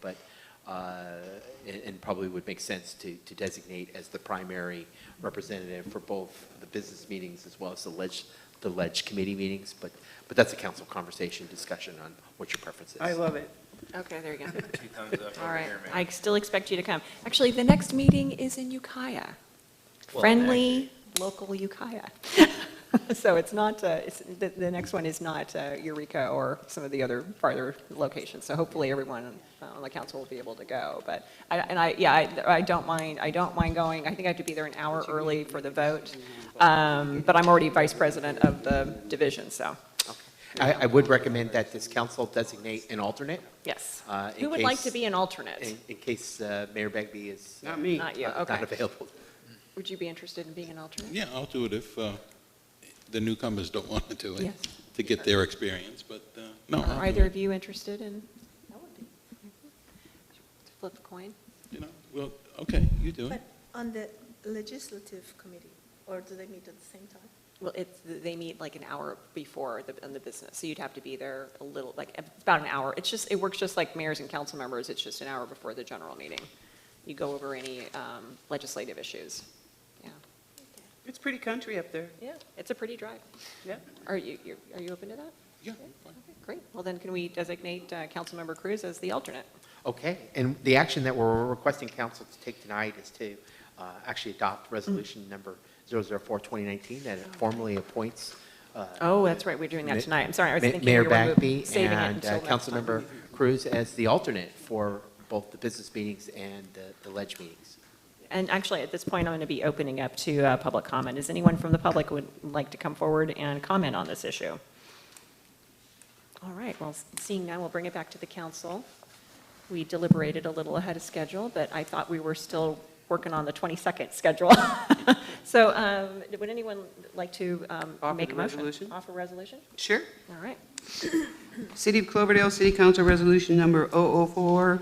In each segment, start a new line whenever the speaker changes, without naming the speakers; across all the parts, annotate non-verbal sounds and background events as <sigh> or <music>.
but, uh, and and probably would make sense to to designate as the primary representative for both the business meetings as well as the ledge, the ledge committee meetings, but, but that's a council conversation, discussion on what your preference is.
I love it.
Okay, there you go.
<laughs> Two thumbs up over
All right.
here, man.
I still expect you to come. Actually, the next meeting is in Ukiah.
Well,
Friendly, local Ukiah. <laughs> So it's not, uh, it's, the, the next one is not uh, Eureka or some of the other farther locations. So hopefully everyone on the council will be able to go. But, I- and I, yeah, I, I don't mind, I don't mind going. I think I have to be there an hour early for the vote. Um, But I'm already vice president of the division, so,
I, I would recommend that this council designate an alternate,
yes.
Uh, in
Who would like
case-
to be an alternate?
in, in case uh, Mayor Bagby is uh,
Not me.
Not you,
not
okay.
available.
Would you be interested in being an alternate?
Yeah, I'll do it if uh, the newcomers don't <laughs> want to do it,
Yes.
to get their experience, but uh, no. I'll
Are
do
either
it.
of you interested in? Flip a coin?
You know, Well, okay, you do it.
But on the legislative committee, or do they meet at the same time?
Well, it's, they meet like an hour before the, in the business, so you'd have to be there a little, like, about an hour. It's just, it works just like mayors and council members, it's just an hour before the general meeting. You go over any um, legislative issues. Yeah.
It's pretty country up there.
Yeah, it's a pretty drive.
Yeah.
Are you, you- are you open to that?
Yeah, fine.
Okay, Great. Well, then can we designate uh, Councilmember Cruz as the alternate?
Okay, and the action that we're requesting council to take tonight is to uh, actually adopt resolution number 004, 2019, that formally appoints. uh,
Oh, that's right, we're doing that
Ma-
tonight. I'm sorry, I was
Ma-
thinking we were
Mayor
moving-
Bagby
saving it
and
until
uh,
next time.
Councilmember Cruz as the alternate for both the business meetings and the- the ledge meetings.
And actually, at this point, I'm going to be opening up to uh, public comment. Is anyone from the public would like to come forward and comment on this issue? All right, well, seeing none, we'll bring it back to the council. We deliberated a little ahead of schedule, but I thought we were still working on the 22nd schedule. <laughs> So um, would anyone like to um,
Offer
make a
the
motion?
resolution?
Offer resolution?
Sure.
All right.
City of Cloverdale City Council Resolution Number 004,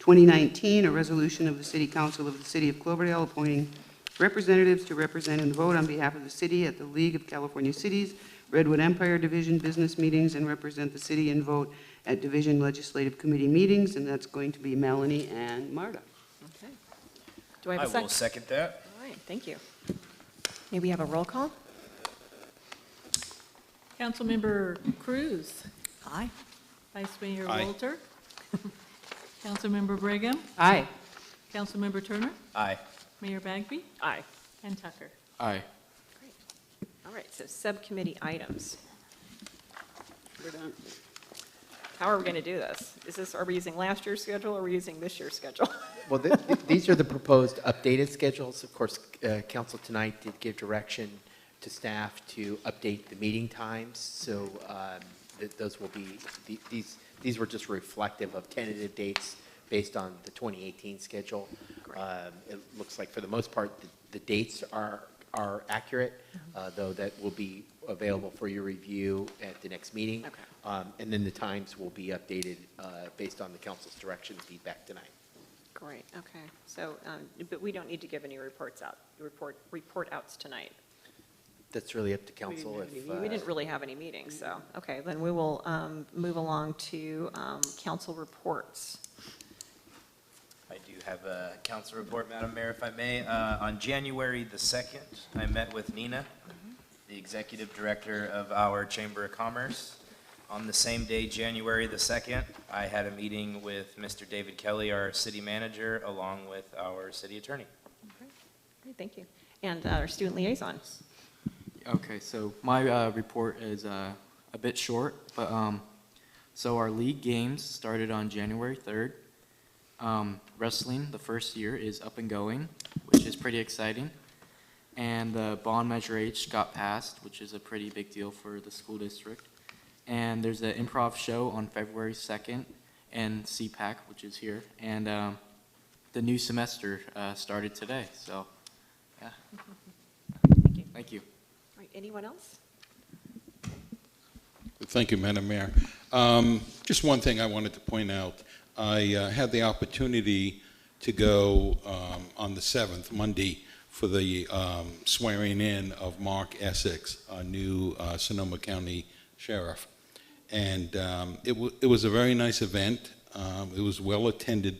2019, a resolution of the City Council of the City of Cloverdale appointing representatives to represent and vote on behalf of the city at the League of California Cities Redwood Empire Division Business Meetings and represent the city and vote at Division Legislative Committee meetings, and that's going to be Melanie and Marta.
Okay. Do I have
I
a second?
will second that.
All right, thank you. May we have a roll call?
Councilmember Cruz.
Aye.
Vice Mayor
Aye.
Walter. <laughs> Councilmember Brigham.
Aye.
Councilmember Turner.
Aye.
Mayor Bagby.
Aye.
And Tucker.
Aye.
All right, so subcommittee items.
We're done.
How are we going to do this? Is this, are we using last year's schedule or are we using this year's schedule? <laughs>
Well, th- th- these are the proposed updated schedules. Of course, uh, council tonight did give direction to staff to update the meeting times, so um, th- those will be, th- these, these were just reflective of tentative dates based on the 2018 schedule. Um, It looks like for the most part, the- the dates are, are accurate, uh, though that will be available for your review at the next meeting.
Okay.
Um, And then the times will be updated uh, based on the council's direction and feedback tonight.
Great, okay. So, um, but we don't need to give any reports out, report, report outs tonight.
That's really up to council if.
We we didn't
uh,
really have any meetings, so, okay, then we will um, move along to um, council reports.
I do have a council report, Madam Mayor, if I may. Uh, On January the 2nd, I met with Nina, the executive director of our Chamber of Commerce. On the same day, January the 2nd, I had a meeting with Mr. David Kelly, our city manager, along with our city attorney.
Great, Thank you. And uh, our student liaison.
Okay, so my uh, report is uh, a bit short, but um, so our league games started on January 3rd. Um, wrestling, the first year, is up and going, which is pretty exciting. And the bond measure H got passed, which is a pretty big deal for the school district. And there's the improv show on February 2nd and CPAC, which is here. And um, the new semester uh, started today, so yeah. <laughs> Thank you.
All right, Anyone else?
Thank you, Madam Mayor. Um, Just one thing I wanted to point out. I uh, had the opportunity to go um, on the 7th, Monday, for the um, swearing in of Mark Essex, our new uh, Sonoma County Sheriff. And um, it wa- it was a very nice event. Um, Um, It was well-attended